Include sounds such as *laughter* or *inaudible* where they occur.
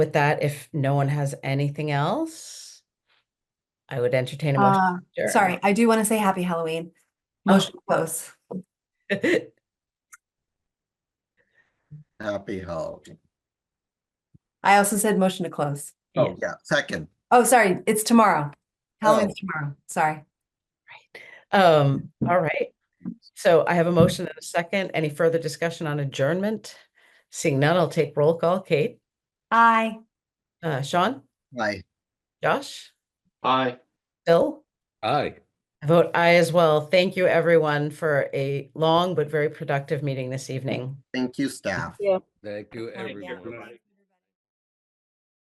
With that, if no one has anything else, I would entertain a motion. Uh, to adjourn. sorry, I do want to say happy Halloween. Oh. Motion to close. Happy Halloween. I also said motion to close. Oh, yeah, second. Oh, sorry, it's tomorrow. Halloween's Oh. tomorrow. Sorry. *laughs* Um, all right. So I have a motion and a second. Any further discussion on adjournment? Seeing none, I'll take roll call. Kate, Aye. uh, Sean, Bye. Josh, Aye. Bill? Aye. I vote aye as well. Thank you, everyone, for a long but very productive meeting this evening. Thank you, staff. Thank you, everyone.